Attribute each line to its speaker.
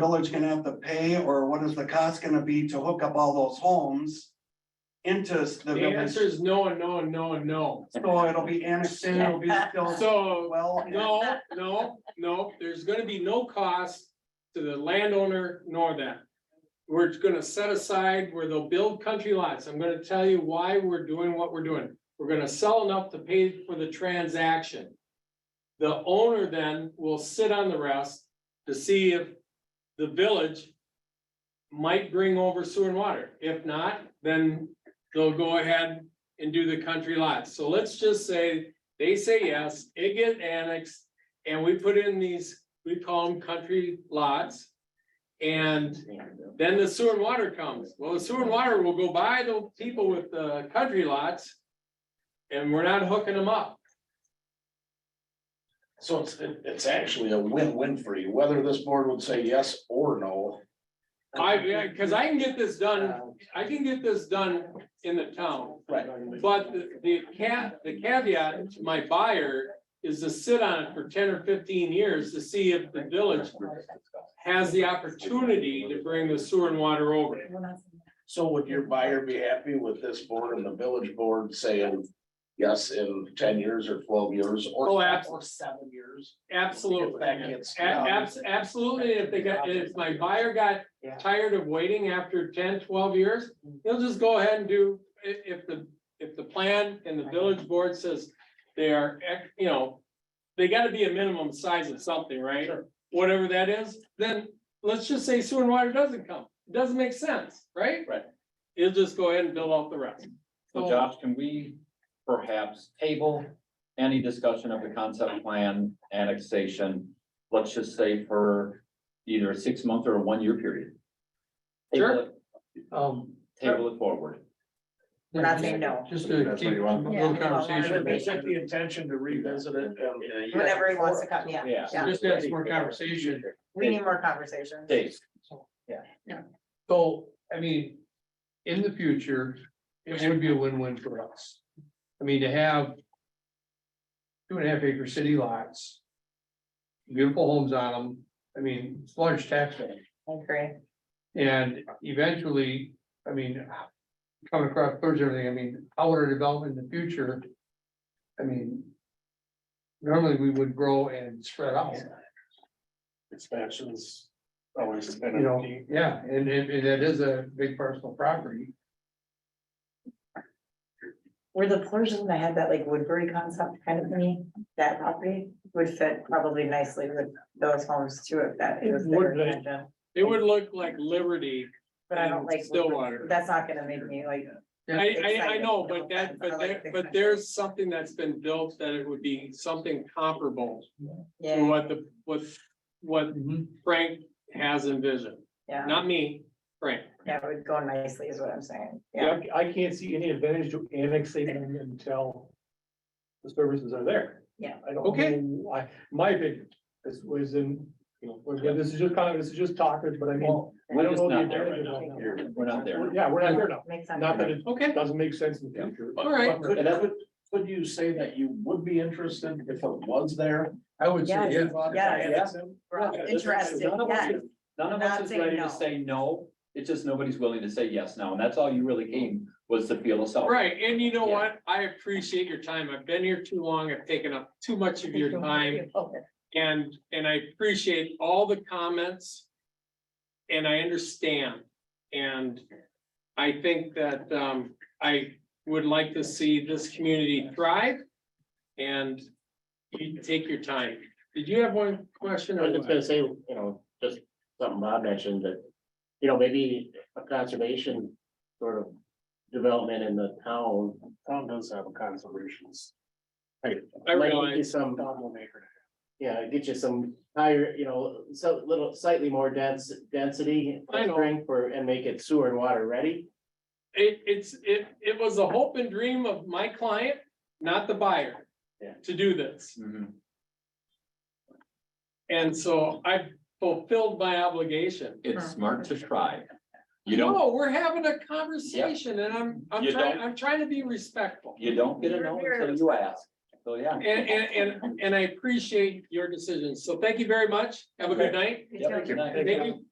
Speaker 1: village gonna have to pay, or what is the cost gonna be to hook up all those homes? Into the
Speaker 2: The
Speaker 1: village,
Speaker 2: answer is no, and no, and no, and no.
Speaker 1: so it'll be annexed in, it'll be still
Speaker 2: So,
Speaker 1: well.
Speaker 2: no, no, no, there's gonna be no cost to the landowner nor them. We're gonna set aside where they'll build country lots. I'm gonna tell you why we're doing what we're doing. We're gonna sell enough to pay for the transaction. The owner then will sit on the rest to see if the village might bring over sewer and water. If not, then they'll go ahead and do the country lots. So let's just say they say yes, it get annexed, and we put in these, we call them country lots. And then the sewer and water comes, well, the sewer and water will go by the people with the country lots. And we're not hooking them up,
Speaker 3: So it's, it- it's actually a win-win for you, whether this board would say yes or no.
Speaker 2: I, yeah, cause I can get this done, I can get this done in the town.
Speaker 3: Right.
Speaker 2: But the- the cat, the caveat to my buyer is to sit on it for ten or fifteen years to see if the village has the opportunity to bring the sewer and water over.
Speaker 3: So would your buyer be happy with this board and the village board saying yes in ten years or twelve years or?
Speaker 2: Oh, abs-
Speaker 3: Or seven years.
Speaker 2: Absolutely.
Speaker 3: If that gets
Speaker 2: A- abs- absolutely, if they got, if my buyer got
Speaker 4: Yeah.
Speaker 2: tired of waiting after 10, 12 years,
Speaker 5: Mm-hmm.
Speaker 2: he'll just go ahead and do, i- if the, if the plan and the village board says they are, ec- you know, they gotta be a minimum size of something, right? Whatever that is, then let's just say sewer and water doesn't come. It doesn't make sense, right?
Speaker 3: Right.
Speaker 2: He'll just go ahead and build out the rest.
Speaker 5: So
Speaker 2: Oh.
Speaker 5: Josh, can we perhaps table any discussion of the concept plan annexation? Let's just say for either a six month or a one year period. Table
Speaker 2: Sure.
Speaker 5: it-
Speaker 4: Um,
Speaker 5: Table it forward.
Speaker 4: we're not saying no,
Speaker 2: Just
Speaker 5: That's what you want.
Speaker 6: Yeah.
Speaker 3: And if they set the intention to revisit it. and-
Speaker 4: whenever he wants to come, yeah,
Speaker 5: Yeah.
Speaker 4: yeah,
Speaker 2: Just have some more conversation.
Speaker 4: we need more conversation.
Speaker 5: Dave,
Speaker 2: So, I mean, in the future, it would be a win-win for us. I mean, to have. Two and a half acre city lots. Beautiful homes on them, I mean, it's large tax base,
Speaker 4: I agree,
Speaker 2: and eventually, I mean. Coming across towards everything, I mean, how would our development in the future? I mean. Normally, we would grow and spread out.
Speaker 3: Expansions always been.
Speaker 2: You know, yeah, and it, and it is a big personal property.
Speaker 4: were the portions that had that like Woodbury concept kind of me, that property would fit probably nicely with those homes too, if that is their
Speaker 2: Woodbury.
Speaker 4: intention.
Speaker 2: It would look like Liberty.
Speaker 4: But I don't
Speaker 2: And
Speaker 4: like.
Speaker 2: Stillwater.
Speaker 4: That's not gonna make me like,
Speaker 2: I, I, I
Speaker 4: Excited,
Speaker 2: know,
Speaker 4: no
Speaker 2: but that,
Speaker 4: offense, I
Speaker 2: but
Speaker 4: like
Speaker 2: there,
Speaker 4: the
Speaker 2: but
Speaker 4: excitement.
Speaker 2: there's something that's been built that it would be something comparable to
Speaker 4: yeah,
Speaker 2: what the, what, what Frank has envisioned.
Speaker 4: yeah,
Speaker 2: Not me, Frank.
Speaker 4: yeah, it would go nicely is what I'm saying, yeah.
Speaker 7: Yeah, I I can't see any advantage to annexating until the services are there.
Speaker 4: Yeah.
Speaker 7: I don't.
Speaker 2: Okay.
Speaker 7: know why. my opinion, this was in, you know, was- this is just kind of, this is just talkers, but I mean, I
Speaker 5: we're
Speaker 7: don't
Speaker 5: just
Speaker 7: know the
Speaker 5: not there right
Speaker 7: advantage
Speaker 5: now.
Speaker 7: of it now.
Speaker 5: We're not there.
Speaker 7: Yeah, we're not there now,
Speaker 4: Makes sense.
Speaker 7: not that it
Speaker 2: Okay,
Speaker 7: doesn't make sense in the future.
Speaker 2: all right.
Speaker 3: Could, could, could you say that you would be interested if it was there?
Speaker 2: I would
Speaker 4: say, Yes. Yes.
Speaker 3: Yeah.
Speaker 4: We're all
Speaker 3: Yeah, this is-
Speaker 4: Interested,
Speaker 5: None of us
Speaker 4: yeah,
Speaker 5: is- none of
Speaker 4: Not
Speaker 5: us is
Speaker 4: saying
Speaker 5: ready
Speaker 4: no.
Speaker 5: to say no. It's just nobody's willing to say yes now. And that's all you really came was to feel us out.
Speaker 2: Right, and you know what? I appreciate your time. I've been here too long. I've taken up too much of your time. And, and I appreciate all the comments. And I understand, and I think that, um, I would like to see this community thrive. And you take your time. Did you have one question?
Speaker 8: I was just gonna say, you know, just something Bob mentioned that, you know, maybe a conservation sort of development in the town.
Speaker 3: Town does have a conservation's.
Speaker 2: I
Speaker 8: might get
Speaker 2: realize.
Speaker 8: you Some,
Speaker 3: One acre.
Speaker 8: yeah, get you some higher, you know, so little slightly more dense density.
Speaker 2: I know.
Speaker 8: footprint For, and make it sewer and water ready.
Speaker 2: It, it's, it, it was a hope and dream of my client, not the buyer.
Speaker 8: Yeah.
Speaker 2: To do this,
Speaker 5: Mhm.
Speaker 2: and so I fulfilled my obligation.
Speaker 5: It's smart to try. You don't
Speaker 2: No, we're having a conversation and I'm, I'm
Speaker 5: You
Speaker 2: trying,
Speaker 5: don't-
Speaker 2: I'm trying to be respectful.
Speaker 5: You don't get a no until you ask, so yeah.
Speaker 2: And, and, and, and I appreciate your decisions. So thank you very much. Have a good night.
Speaker 5: Yep, good night.
Speaker 2: Thank you.